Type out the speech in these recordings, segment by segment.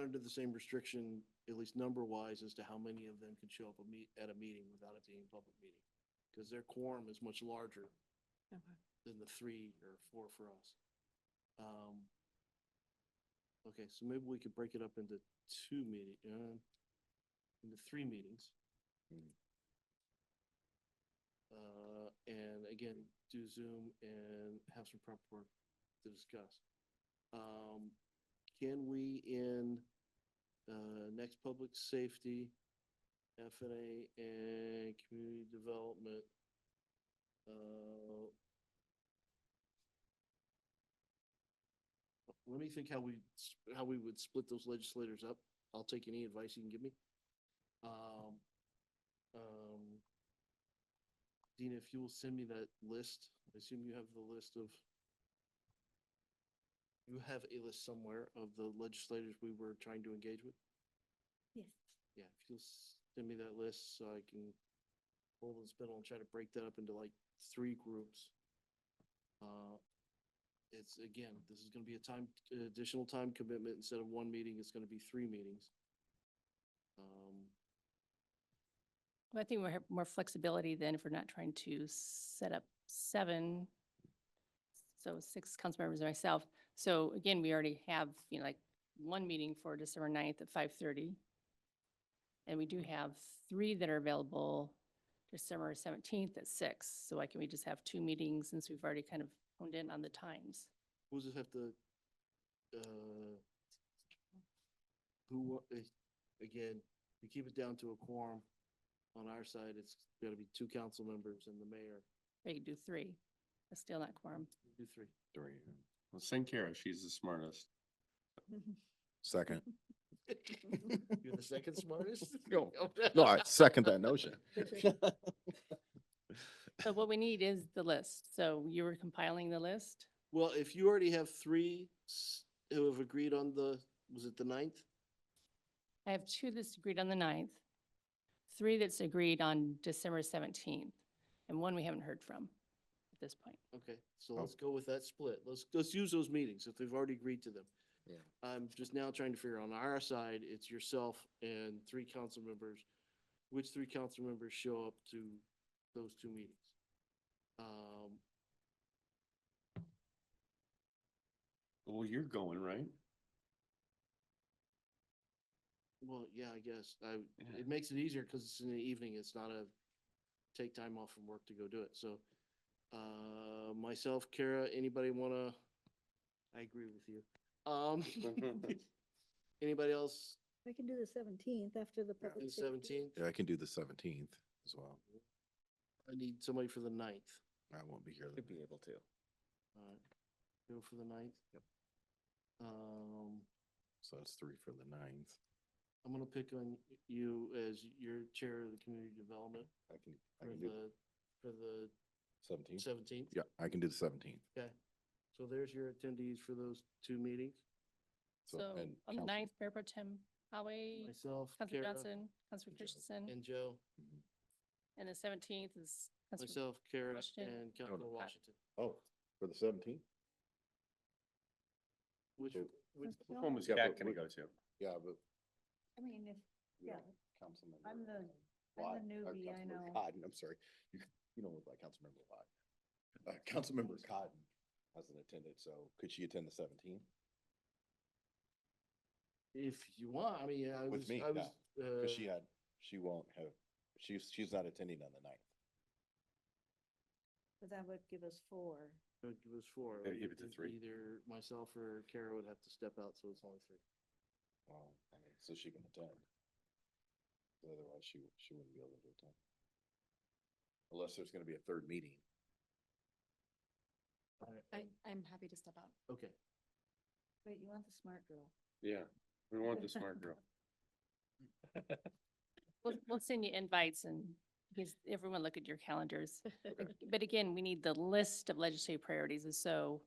under the same restriction, at least number-wise, as to how many of them can show up a meet, at a meeting without it being a public meeting. Because their quorum is much larger Okay. than the three or four for us. Um, Okay, so maybe we could break it up into two meeting, uh, into three meetings. Uh, and again, do Zoom and have some prep work to discuss. Um, can we in, uh, next public safety, FNA and community development, uh, let me think how we, s- how we would split those legislators up. I'll take any advice you can give me. Um, um, Dina, if you will send me that list, I assume you have the list of, you have a list somewhere of the legislators we were trying to engage with? Yes. Yeah, if you'll s- send me that list so I can hold and spin and try to break that up into like three groups. Uh, it's, again, this is gonna be a time, additional time commitment. Instead of one meeting, it's gonna be three meetings. Um, Well, I think we'll have more flexibility then if we're not trying to set up seven. So six council members and myself. So again, we already have, you know, like one meeting for December 9th at five thirty. And we do have three that are available December seventeenth at six. So why can we just have two meetings since we've already kind of honed in on the times? Who's this have to, uh, who, wa- eh, again, we keep it down to a quorum. On our side, it's gotta be two council members and the mayor, They could do three. That's still not quorum. do three. Three. Well, send Kara, she's the smartest. Second. You're the second smartest? No, no, I second that notion. So what we need is the list. So you were compiling the list? Well, if you already have three s- who have agreed on the, was it the ninth? I have two that's agreed on the 9th, three that's agreed on December 17th, and one we haven't heard from at this point. Okay, so Oh. let's go with that split. Let's, let's use those meetings if they've already agreed to them. Yeah. I'm just now trying to figure on our side, it's yourself and three council members. Which three council members show up to those two meetings? Um, Well, you're going, right? well, yeah, I guess I, Yeah. it makes it easier because it's in the evening. It's not a take time off from work to go do it. So, uh, myself, Kara, anybody wanna? I agree with you. Um, anybody else I can do the seventeenth after the in public. the safety. seventeenth? Yeah, I can do the seventeenth as well. I need somebody for the ninth. I won't be here. Could be able to. Alright, go for the ninth. Yep. Um, So that's three for the ninth. I'm gonna pick on y- you as your chair of the community development I can, I for can do the, for the Mm-hmm. seventeenth. seventeenth. Yeah, I can do the seventeenth. Okay, so there's your attendees for those two meetings, So, So and on the council- 9th, Mayor Pro Tem Howie, myself, Councilor Kara, Johnson, Councilor Joe. Christensen, and Joe, Mhm. and the 17th is Councilor myself, Kara, Washington. and Councilor Washington. Oh, for the seventeenth? Which, Oh. which, What home is Yeah, Kat but gonna we- go to? Yeah, but. I mean, if, you know, Yeah. Councilmember. I'm the- I'm the Lott- uh, newbie, I Councilmember know. Cotton, I'm sorry, you, you don't look like Councilmember Lott. Uh, Councilmember Cotton hasn't attended, so could she attend the seventeenth? if you want, I mean, I With was, me, I was. no, Cause she uh, had, she won't have, she's, she's not attending on the ninth. but that would give us four. It would give us four. Yeah, give it to Either- three. Either myself or Kara would have to step out, so it's only three. Well, I mean, so she can attend. But Otherwise, she, she wouldn't be able to attend. Unless there's gonna be a third meeting. Alright, I, um, I'm happy to step out. Okay, Wait, you want the smart girl? Yeah, we want the smart girl. We'll, we'll send you invites and because everyone look at your calendars. But again, we need the list of legislative priorities. And so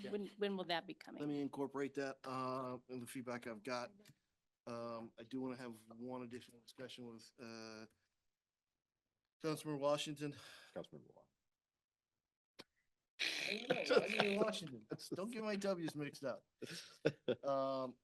Yeah. when, when will that be coming? let me incorporate that, uh, in the feedback I've got. Um, I do wanna have one additional discussion with, uh, Councilman Washington. Councilmember Lott. I mean, Washington. Don't get my W's mixed up. Um,